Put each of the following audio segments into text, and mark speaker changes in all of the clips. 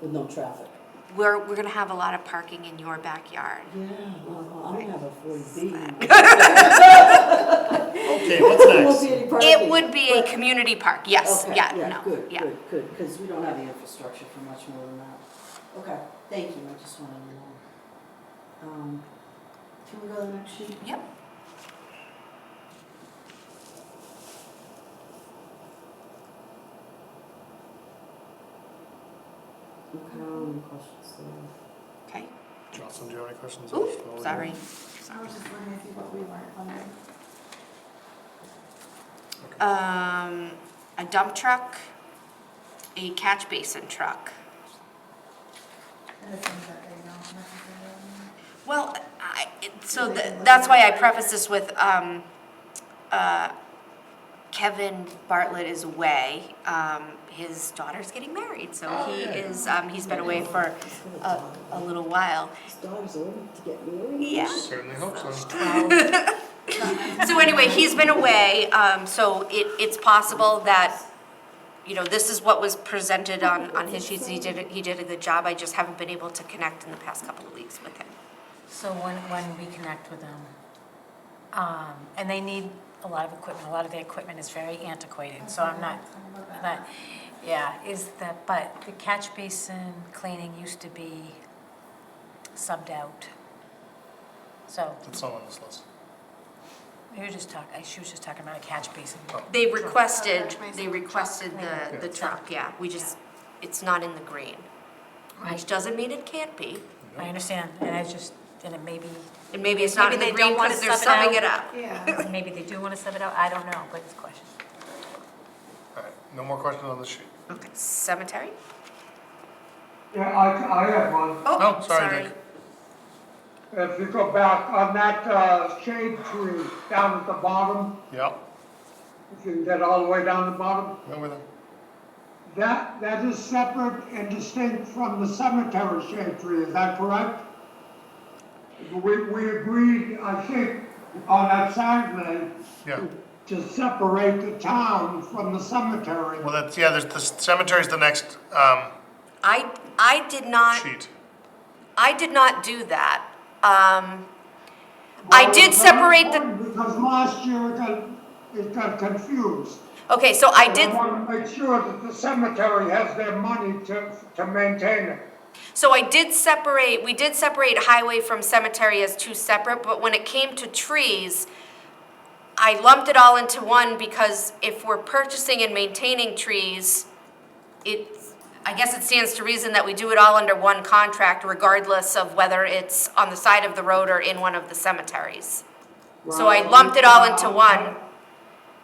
Speaker 1: with no traffic.
Speaker 2: We're, we're gonna have a lot of parking in your backyard.
Speaker 1: Yeah, well, I don't have a forty B.
Speaker 3: Okay, what's next?
Speaker 2: It would be a community park, yes,
Speaker 1: Okay,
Speaker 2: yeah, no,
Speaker 1: Good,
Speaker 2: yeah.
Speaker 1: good, good, because we don't have the infrastructure for much more than that. Okay, thank you, I just wanted to know. Um, Can we go to the next sheet?
Speaker 2: Yep.
Speaker 1: Okay, any questions there?
Speaker 2: Okay.
Speaker 3: Jocelyn, do you have any questions?
Speaker 2: Ooh,
Speaker 1: Oh,
Speaker 2: sorry.
Speaker 4: I was just wondering if you thought we weren't funded.
Speaker 2: Um, a dump truck, a catch basin truck.
Speaker 4: And the things that they don't necessarily.
Speaker 2: Well, I, it- so the- that's why I preface this with, um, uh, Kevin Bartlett is away. Um, his daughter's getting married, so
Speaker 1: Oh,
Speaker 2: he is, um, he's been away for a, a little while.
Speaker 1: His daughter's older to get married?
Speaker 2: Uh, Yeah.
Speaker 3: Certainly hope so.
Speaker 2: So anyway, he's been away, um, so it, it's possible that, you know, this is what was presented on, on his sheets. He did, a- he did a good job. I just haven't been able to connect in the past couple of weeks with him.
Speaker 5: So when, when we connect with them, um, and they need a lot of equipment, a lot of the equipment is very antiquated, so I'm not, not, yeah, is that, but the catch basin cleaning used to be subbed out. So,
Speaker 3: It's not on this list.
Speaker 5: we were just talking, she was just talking about a catch basin.
Speaker 2: They requested, they requested the, the truck, yeah. We just, it's not in the green, which
Speaker 5: Right,
Speaker 2: doesn't mean it can't be.
Speaker 5: I understand, and I just, and it may be,
Speaker 2: And maybe it's not in the
Speaker 5: Maybe they don't
Speaker 2: green
Speaker 5: wanna
Speaker 2: because they're
Speaker 5: sub it
Speaker 2: subbing
Speaker 5: out.
Speaker 2: it up.
Speaker 4: Yeah.
Speaker 5: maybe they do want to sub it out, I don't know, but it's a question.
Speaker 3: All right, no more questions on this sheet.
Speaker 2: Okay, cemetery?
Speaker 6: Yeah, I, I have one.
Speaker 2: Oh,
Speaker 3: Oh, sorry,
Speaker 2: sorry.
Speaker 3: Nick.
Speaker 6: If you go back on that uh, shade tree down at the bottom,
Speaker 3: Yeah,
Speaker 6: if you can get all the way down the bottom,
Speaker 3: remember that?
Speaker 6: that, that is separate and distinct from the cemetery shade tree, is that correct? We, we agreed, I think, on that Saturday
Speaker 3: Yeah.
Speaker 6: to separate the town from the cemetery.
Speaker 3: Well, that's, yeah, there's, the cemetery's the next, um,
Speaker 2: I, I did not.
Speaker 3: sheet.
Speaker 2: I did not do that. Um, I did separate the,
Speaker 6: Because last year it got, it got confused.
Speaker 2: okay, so I did,
Speaker 6: I want to make sure that the cemetery has their money to, to maintain it.
Speaker 2: so I did separate, we did separate highway from cemetery as two separate, but when it came to trees, I lumped it all into one because if we're purchasing and maintaining trees, it, I guess it stands to reason that we do it all under one contract regardless of whether it's on the side of the road or in one of the cemeteries. So I lumped it all into one.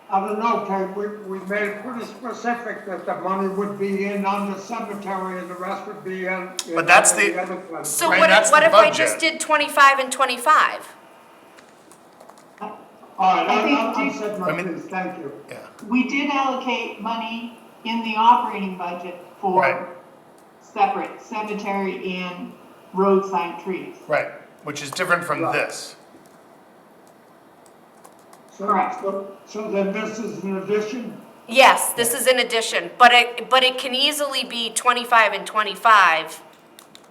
Speaker 6: I don't know, Kate, we, we made it pretty specific that the money would be in on the cemetery and the rest would be in. in
Speaker 3: But that's the-
Speaker 6: other place.
Speaker 2: So
Speaker 3: Right,
Speaker 2: what
Speaker 3: that's
Speaker 2: if, what
Speaker 3: the
Speaker 2: if I
Speaker 3: budget.
Speaker 2: just did twenty-five and twenty-five?
Speaker 6: All right,
Speaker 7: I think
Speaker 6: I, I, I
Speaker 7: do-
Speaker 6: said
Speaker 3: I
Speaker 6: my
Speaker 3: mean-
Speaker 6: piece, thank you.
Speaker 3: Yeah,
Speaker 7: We did allocate money in the operating budget
Speaker 3: Right.
Speaker 7: for separate cemetery and road sign trees.
Speaker 3: right, which is different from this.
Speaker 6: So-
Speaker 7: Correct.
Speaker 6: So, so then this is an addition?
Speaker 2: Yes, this is an addition, but it, but it can easily be twenty-five and twenty-five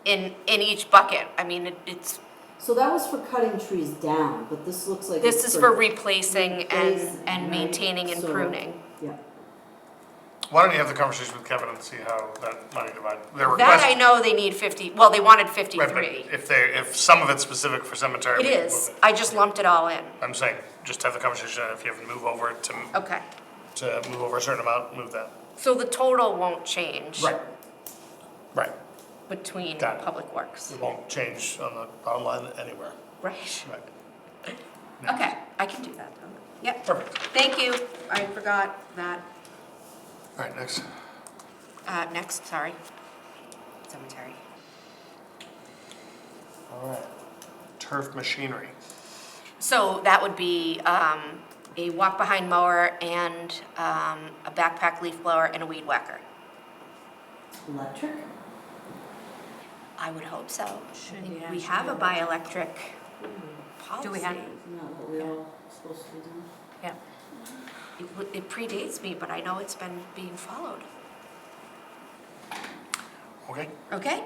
Speaker 2: in, in each bucket. I mean, it- it's,
Speaker 8: So that was for cutting trees down, but this looks like.
Speaker 2: this
Speaker 8: it's
Speaker 2: is for replacing and,
Speaker 8: Replacing,
Speaker 2: and
Speaker 8: right.
Speaker 2: maintaining and
Speaker 8: So-
Speaker 2: pruning.
Speaker 8: Yeah.
Speaker 3: Why don't you have the conversation with Kevin and see how that money divide, their
Speaker 2: That
Speaker 3: request.
Speaker 2: I know they need fifty, well, they wanted
Speaker 3: Right, but
Speaker 2: fifty-three.
Speaker 3: If they, if some of it's specific for cemetery.
Speaker 2: It
Speaker 3: we can
Speaker 2: is,
Speaker 3: move it.
Speaker 2: I just lumped it all in.
Speaker 3: I'm saying, just have the conversation, and if you have to move over to,
Speaker 2: Okay,
Speaker 3: to move over a certain amount, move that.
Speaker 2: so the total won't change
Speaker 3: Right,
Speaker 2: between
Speaker 3: Got it.
Speaker 2: Public Works,
Speaker 3: it won't change on the bottom line anywhere.
Speaker 2: Mm. right?
Speaker 3: Right.
Speaker 2: Okay, I can do that, though. yep.
Speaker 3: Perfect.
Speaker 2: Thank you, I forgot that.
Speaker 3: All right, next.
Speaker 2: Uh, next, sorry. Cemetery.
Speaker 3: All right. Turf machinery.
Speaker 2: So that would be, um, a walk-behind mower and, um, a backpack leaf blower and a weed whacker.
Speaker 1: Electric?
Speaker 2: I would hope so.
Speaker 5: Should
Speaker 2: I think
Speaker 5: we
Speaker 2: We
Speaker 5: actually
Speaker 2: have
Speaker 5: do
Speaker 2: a
Speaker 5: that? Hmm.
Speaker 2: bioelectric policy.
Speaker 5: Do we have-
Speaker 8: Isn't that what we all supposed to be doing?
Speaker 5: Yeah,
Speaker 2: It w- It predates me, but I know it's been being followed.
Speaker 3: okay?
Speaker 2: Okay?